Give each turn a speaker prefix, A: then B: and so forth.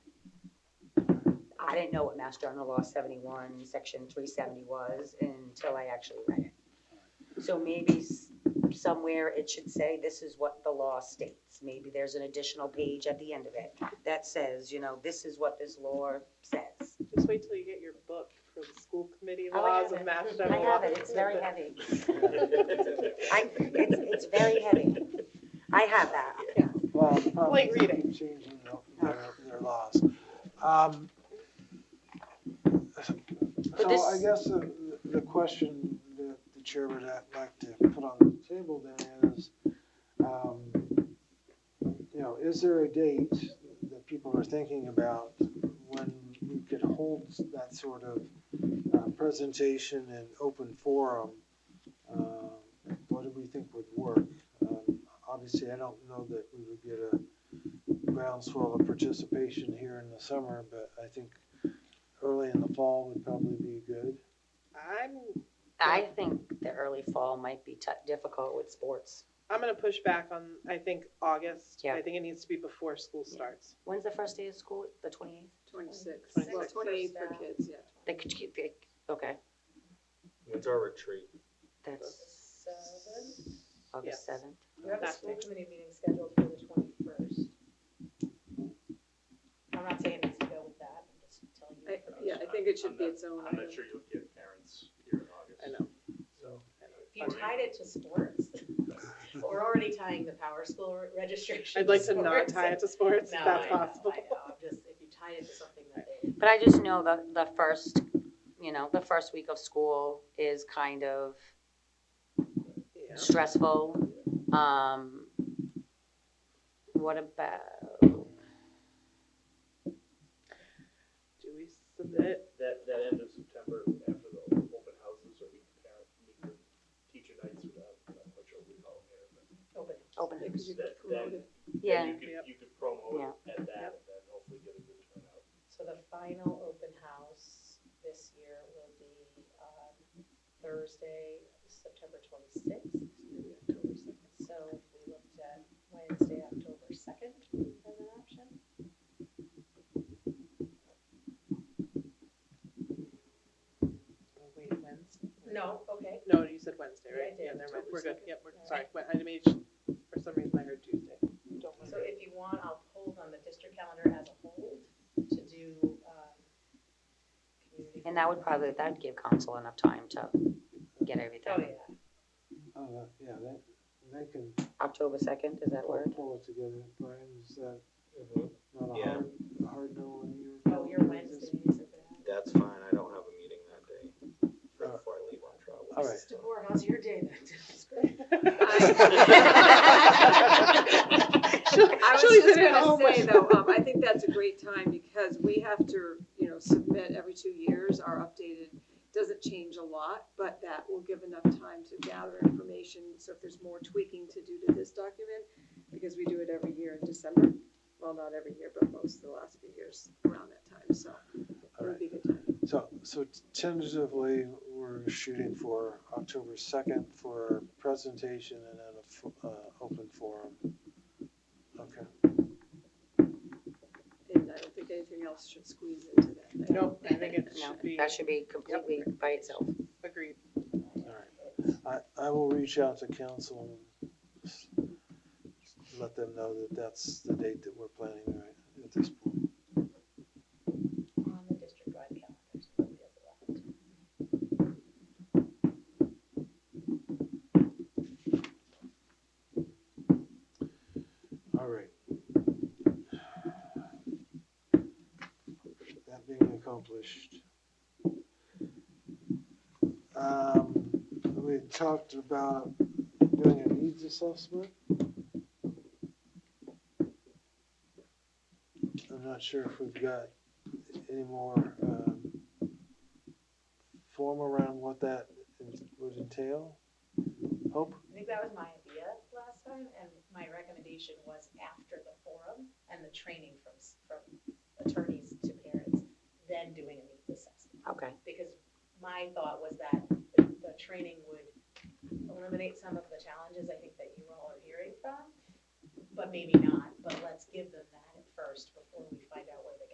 A: I didn't know what Mass General Law 71, Section 370 was until I actually read it. So maybe s- somewhere it should say, this is what the law states. Maybe there's an additional page at the end of it that says, you know, this is what this law says.
B: Just wait till you get your book for the school committee
A: Oh, I
B: laws
A: have
B: of Mass
A: I
B: General.
A: have it, it's very heavy. I, it's, it's very heavy. I have that.
C: Well, um,
B: Like reading.
C: Changing their, their laws. Um, So I
A: this-
C: guess the, the question that the chair would like to put on the table then is, um, you know, is there a date that people are thinking about when we could hold that sort of uh, presentation in open forum? Uh, What do we think would work? Um, Obviously, I don't know that we would get a groundswell of participation here in the summer, but I think early in the fall would probably be good.
B: I'm,
A: I think the early fall might be tou- difficult with sports.
B: I'm gonna push back on, I think, August.
A: Yeah.
B: I think it needs to be before school starts.
A: When's the first day of school? The 28th?
D: Twenty-six,
B: Twenty
D: well,
B: six.
D: twenty-eight for kids, yeah.
A: They could keep, they, okay,
E: When's our retreat?
A: that's
D: Seven?
A: August
B: Yes.
A: seventh.
D: We have a
B: That's
D: school
B: it.
D: committee meeting scheduled for the twenty-first.
F: I'm not saying it's to go with that, I'm just telling you.
D: Yeah, I think it should be its own.
G: I'm not sure you'll get parents here in August.
B: I know.
G: So.
F: If you tied it to sports, we're already tying the power school re- registration.
B: I'd like to not
F: sports.
B: tie it to sports, if
F: No,
B: that's
F: I know,
B: possible.
F: I know, I'm just, if you tie it to something that they,
A: But I just know the, the first, you know, the first week of school is kind of
B: Yeah.
A: stressful. Um, what about,
B: Do we submit?
G: That, that end of September, after the open houses, or we can parent, we can teacher nights, or that, I'm not sure what we call it here, but.
F: open
A: open
D: Yeah, 'cause you could
G: That-
D: promote
G: that-
D: it.
A: yeah,
G: You could, you could promo it at that, and then hopefully get a good turnout.
F: So the final open house this year will be on Thursday, September 26th. So if we looked at Wednesday, October 2nd as an option.
B: Oh, Wait, Wednesday?
F: No, okay.
B: No, you said Wednesday,
F: Yeah, I
B: right?
F: did.
B: Yeah, never mind,
F: October
B: we're good,
F: second.
B: yep, we're,
F: All
B: sorry, Wait,
F: right.
B: I made, for some reason I heard Tuesday. Don't
F: So
B: worry.
F: if you want, I'll hold on the district calendar as a whole to do, um, community.
A: and that would probably, that'd give council enough time to get
F: Oh,
A: everything.
F: yeah.
C: Uh, yeah, that, they can
A: October second, is that
C: pull,
A: word?
C: pull it together. Brian, is that Mm-hmm. not a
E: Yeah.
C: hard, a hard no on your?
F: Oh, your Wednesdays are bad.
E: That's fine, I don't have a meeting that day, right
C: Uh,
E: before I leave on travel.
C: all right.
F: Mrs. DeBoer, how's your day then?
D: I was just gonna say though, um, I think that's a great time because we have to, you know, submit every two years our updated, doesn't change a lot, but that will give enough time to gather information. So if there's more tweaking to do to this document, because we do it every year in December, well, not every year, but most of the last few years around that time, so it would be a good time.
C: So, so tentatively, we're shooting for October second for presentation and then a, fo- uh, open forum. Okay.
D: And I don't think anything else should squeeze into that. I
B: Nope, I think it
A: No,
B: should be,
A: that should be completely by itself.
B: agreed.
C: I, I will reach out to council and s- let them know that that's the date that we're planning right at this point.
F: On the district-wide calendar, so nobody has it left.
C: All right. That being accomplished. Um, we talked about doing a needs assessment. I'm not sure if we've got any more, um, form around what that would entail. Hope?
F: I think that was my idea last time, and my recommendation was after the forum and the training from, s- from attorneys to parents, then doing a needs assessment.
A: Okay.
F: Because my thought was that the the training would eliminate some of the challenges I think that you all are hearing from, but maybe not.